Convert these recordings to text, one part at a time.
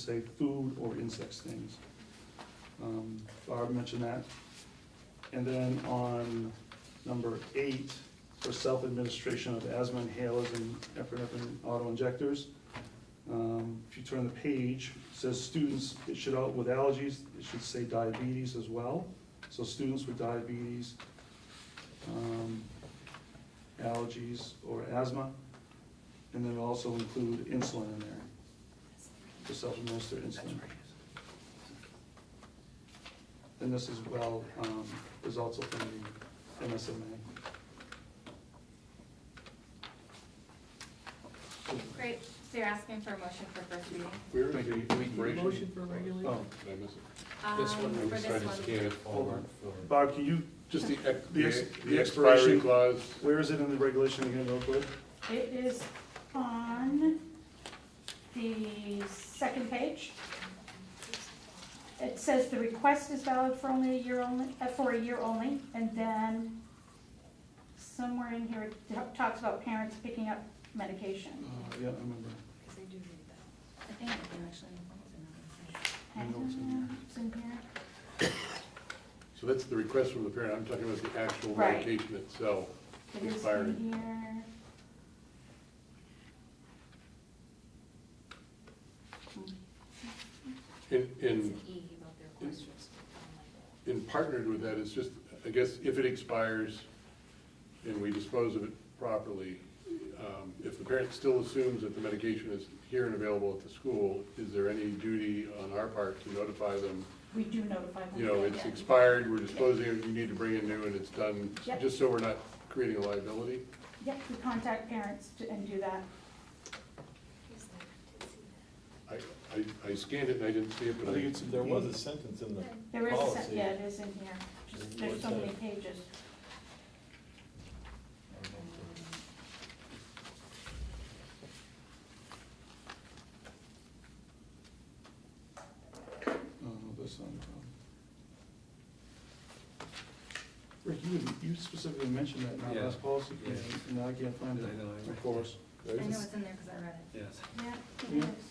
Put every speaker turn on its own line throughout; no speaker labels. say food or insect stings. Um, Barb mentioned that. And then on number eight, for self-administration of asthma inhalers and epinephrine auto-injectors. Um, If you turn the page, it says students, it should, all- with allergies, it should say diabetes as well. So students with diabetes, um, allergies, or asthma. And then also include insulin in there, to self-administer insulin. And this as well, um, is also from the MSMA.
Great, so you're asking for a motion for first reading?
Where is
Thank you.
the equation?
Motion for regulation?
Oh,
Did I miss it?
This one
Um,
we
For this one,
hold on. Bob, can you,
Just the, ex-
The ex-
the
the
expiration
expiration-
clause,
where is it in the regulation again, real quick?
It is on the second page. It says the request is valid for only a year only, uh, for a year only, and then somewhere in here it ta- talks about parents picking up medication.
Uh, Yeah, I remember.
I think I can actually. it's
I know it's in there.
It's in here.
so that's the request from the parent, I'm talking about the actual
Right.
medication itself
It is
expiring.
in here.
And, and
an E about their questions.
and partnered with that is just, I guess, if it expires and we dispose of it properly, um, if the parent still assumes that the medication is here and available at the school, is there any duty on our part to notify them?
We do notify them.
You know, it's expired, we're disposing of it, you need to bring in new and it's done,
Yep.
just so we're not creating a liability?
Yep, we contact parents to- and do that.
I, I- I scanned it and I didn't see it,
I
but
think
I,
it's.
There was a sentence in the
There is, a se-
policy.
yeah, it is in here. Just- There's so many pages.
Oh, that's not a problem. Rick, you, you specifically mentioned that in our
Yeah.
last policy,
Yeah.
and- and I can't find it.
I know, I-
Of course.
I know it's in there because I read it.
Yes.
Yeah, it
Hmm?
Yeah.
is.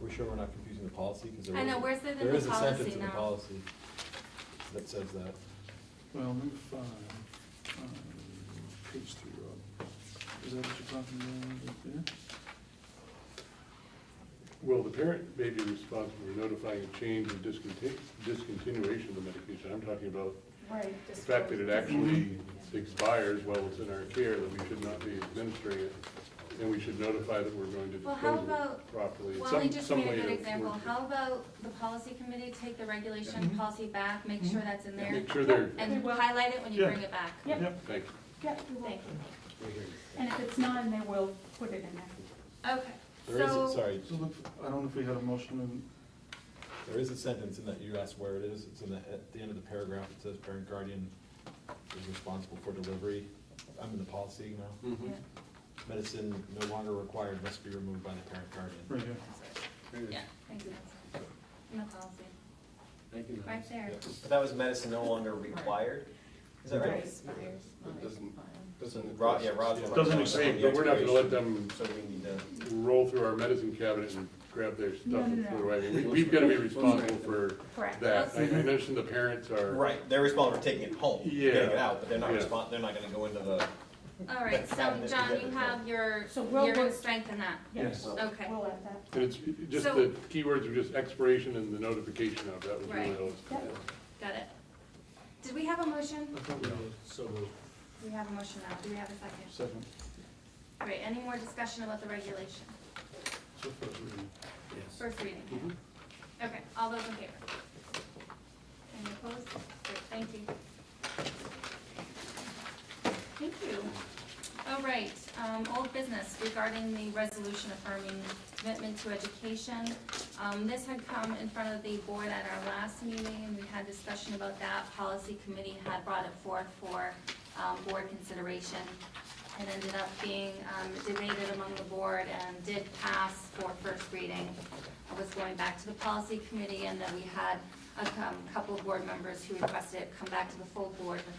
We're sure we're not confusing the policy, because there
I
is.
know, where's it in
there
the
is a
policy
sentence in the
now?
policy that says that.
Well, number five, uh, page three, Rob. Is that what you're talking about right there?
well, the parent may be responsible for notifying a change and discontinu- discontinuation of the medication. I'm talking about
Right.
the fact that it actually expires while it's in our care, that we should not be administering it, and we should notify that we're going to
Well, how
dispose of
about-
it properly.
Wally
Some-
just
some
made a
way
good
to
example.
work it.
How about the policy committee take the regulation
Mhm.
Mm-hmm.
policy back, make sure that's in there,
Make sure they're,
and
Well-
highlight it when you
Yeah.
bring it back?
Yep.
thank you.
Yep, we will.
Thank you.
And if it's not, then we'll put it in there.
Okay,
There is, a-
so,
sorry,
So look, I don't know if we had a motion and
there is a sentence in that, you asked where it is, it's in the, at the end of the paragraph, it says parent guardian is responsible for delivery. I'm in the policy
Hmm.
now. Medicine no longer required must be removed by the parent guardian.
right here.
yeah, thanks, Nancy. In the policy,
Thank you.
right there.
Yeah.
But that was medicine no longer required, is that right?
It doesn't- doesn't-
Rob, yeah, Rob's.
Yeah.
Doesn't
Hey,
expand,
But we're not gonna let them
So we need to.
roll through our medicine cabinet and grab their
No,
stuff and
no,
throw
no.
it away. I mean, we- We've gotta be responsible for
Correct.
that. I I mentioned the parents are.
Right, they're responsible for taking it home,
Yeah.
getting it out, but they're not
Yeah.
respon, they're not gonna go into the,
All right, so
Cabinet
John, you
together.
have your,
So we'll
you're gonna
work-
strengthen that,
Yes.
okay.
We'll add that.
And it's just
So-
the keywords are just expiration and the notification of, that was really
Right.
all. it's-
Yep.
Got it. Did we have a motion?
I thought we had
We have a motion now. Do we have a second?
a second.
Great. Any more discussion about the regulation?
So first reading.
First reading. Okay, all those in favor? Any opposed? Great, thank you. Thank you. All right, um, old business regarding the resolution affirming commitment to education. Um, this had come in front of the board at our last meeting, and we had discussion about that. Policy committee had brought it forth for, um, board consideration. It ended up being, um, debated among the board and did pass for first reading. I was going back to the policy committee, and then we had a um, couple of board members who requested it come back to the full board with